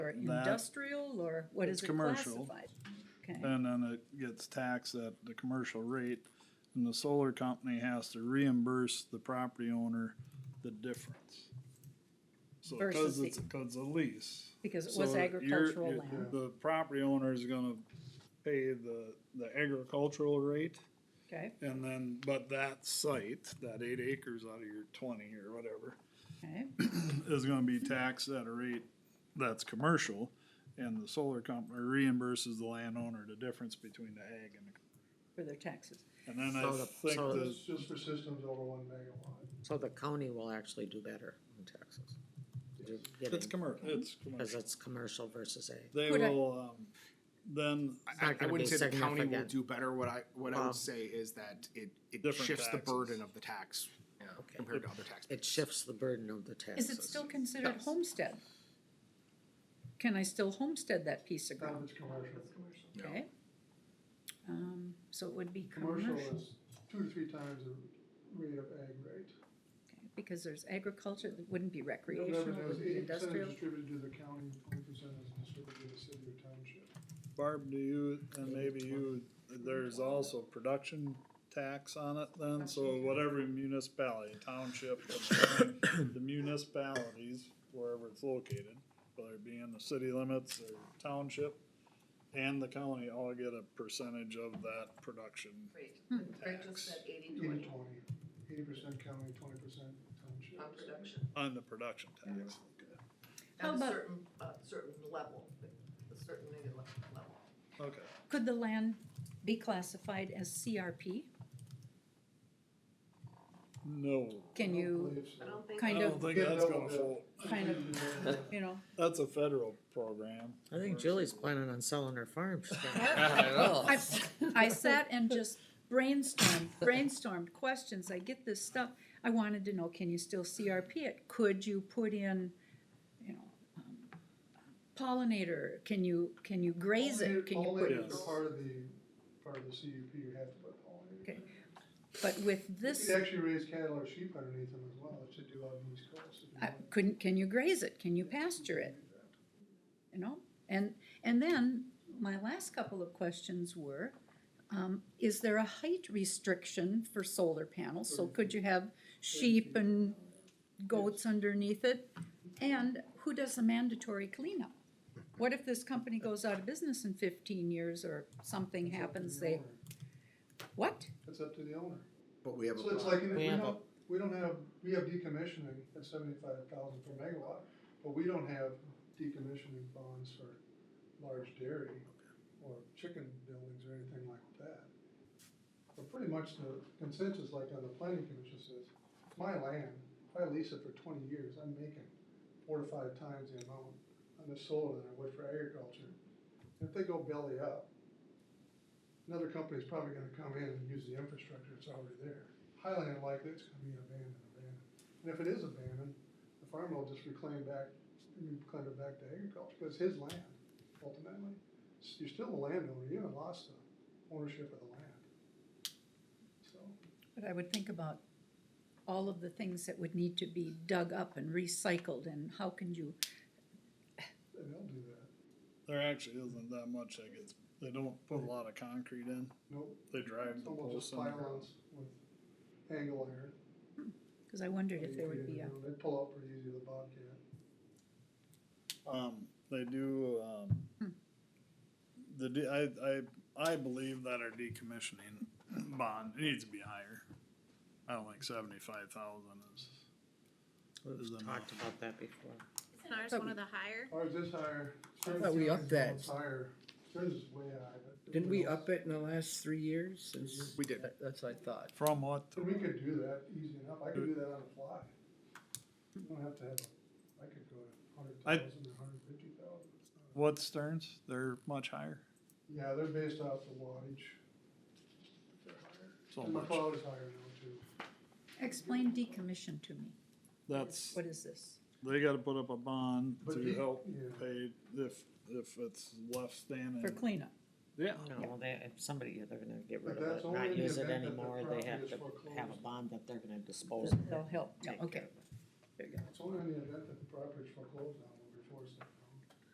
or industrial, or what It's is it commercial. Uh, classified? Okay, And then it gets taxed at the commercial rate, and the solar company has to reimburse the property owner the difference. So, Versus cause the- it's, cause a lease. because it was So you're- agricultural you're- land, The property owner is gonna pay the, the agricultural rate, okay, and then, but that site, that eight acres out of your twenty or whatever, okay, is gonna be taxed at a rate that's commercial, and the solar company reimburses the landowner the difference between the ag and the for their taxes. And then I So the- think so the, That's just for systems over one megawatt. So the county will actually do better in Texas. You're it's getting- commercial, it's Cause commercial. it's commercial versus a, They Could I- will, um, then, It's I, not I gonna wouldn't be say the county will significant. do better. What I, what I Well- would say is that it, it Different shifts the taxes. burden of the tax Okay. compared to other tax. it shifts the burden of the Is taxes. it still considered Yes. homestead? Can I still homestead that piece of Not if ground, it's commercial. No. okay? Um, so it would be Commercial commercial, okay, is two to three times the rate of ag rate. because there's agriculture, it wouldn't be recreational, Whatever it those would be eighty percent industrial. is distributed to the county, twenty percent is distributed to the city or township. Barb, do you, and maybe you, there's also production tax on it then, so whatever municipality, township, the municipalities, wherever it's located, whether it be in the city limits or township, and the county all get a percentage of that production. Great, Greg Tax. just said Eighty eighty twenty twenty, eighty percent county, twenty percent township. on production, On the production tax. How at a about- certain, uh, certain level, a certain maybe le- level. Okay. Could the land be classified as CRP? No. Can you I don't think. I kind don't of, think that's gonna fall, kind of, you know, that's a federal program. I think Julie's planning on selling her farm. She's gonna- I, I sat and just brainstormed, brainstormed questions, I get this stuff. I wanted to know, can you still CRP it? Could you put in, you know, um, pollinator, can you, can you graze it? Can you All put, it- that are part of the, part of the CUP, you have to put all in. Okay. but with You this, could actually raise cattle or sheep underneath them as well, that should do out in these coasts. if you I want. couldn't, can you graze it? Can you pasture it? you know? And, and then my last couple of questions were, um, is there a height restriction for solar panels? So could you have sheep and goats underneath it? And who does the mandatory cleanup? What if this company goes out of business in fifteen years or something It's up to happens, the they, owner. what? It's up to the owner. But we have So it's like, We we have don't, we don't have, we have decommissioning at seventy-five thousand per megawatt, but we don't have decommissioning bonds for large dairy or chicken buildings or anything like that. But pretty much the consensus, like on the planning commission says, it's my land, if I lease it for twenty years, I'm making four to five times the amount on the solar than I would for agriculture. If they go belly up, another company's probably gonna come in and use the infrastructure that's already there. Highly unlikely it's gonna be abandoned, abandoned. And if it is abandoned, the farmer will just reclaim back, reclaim it back to agriculture, because it's his land ultimately. S- You're still a landowner, you haven't lost the ownership of the land. So, But I would think about all of the things that would need to be dug up and recycled and how can you, and they'll do that. There actually isn't that much that gets, they don't put a lot of concrete in, Nope, they drive it's the posts almost just in. pylons with angle iron. cause I wondered if there would be a, They pull out pretty easy with a bobcat. Um, they do, um, the, de- I, I, I believe that our decommissioning bond needs to be higher. I don't think seventy-five thousand is, We've talked about that before. Isn't ours one of the higher? Ours is higher. Certain thought we ceilings upped go that. up Higher, theirs is way high, but. Didn't we up it in the last three years? since- We did. That- That's what I thought. from what, And we could do that easy enough, I could do that on the fly. You don't have to have, a- I could go to hundred I- thousand or hundred fifty thousand. what Stearns, they're much higher, Yeah, they're based off the wattage. They're higher. so And much, McLeod is higher now too. explain decommission to me. that's. What is this? They gotta put up a bond But to the- help yeah. pay if, if it's left standing. For cleanup? Yeah, No, they, if somebody, they're gonna get But rid of that's it, only in not the use it event that the anymore, they property have is to have a foreclosed. bond that they're gonna dispose of. it. They'll help, yeah, Take okay. care of it. There you go. It's only in the event that the property's foreclosed on,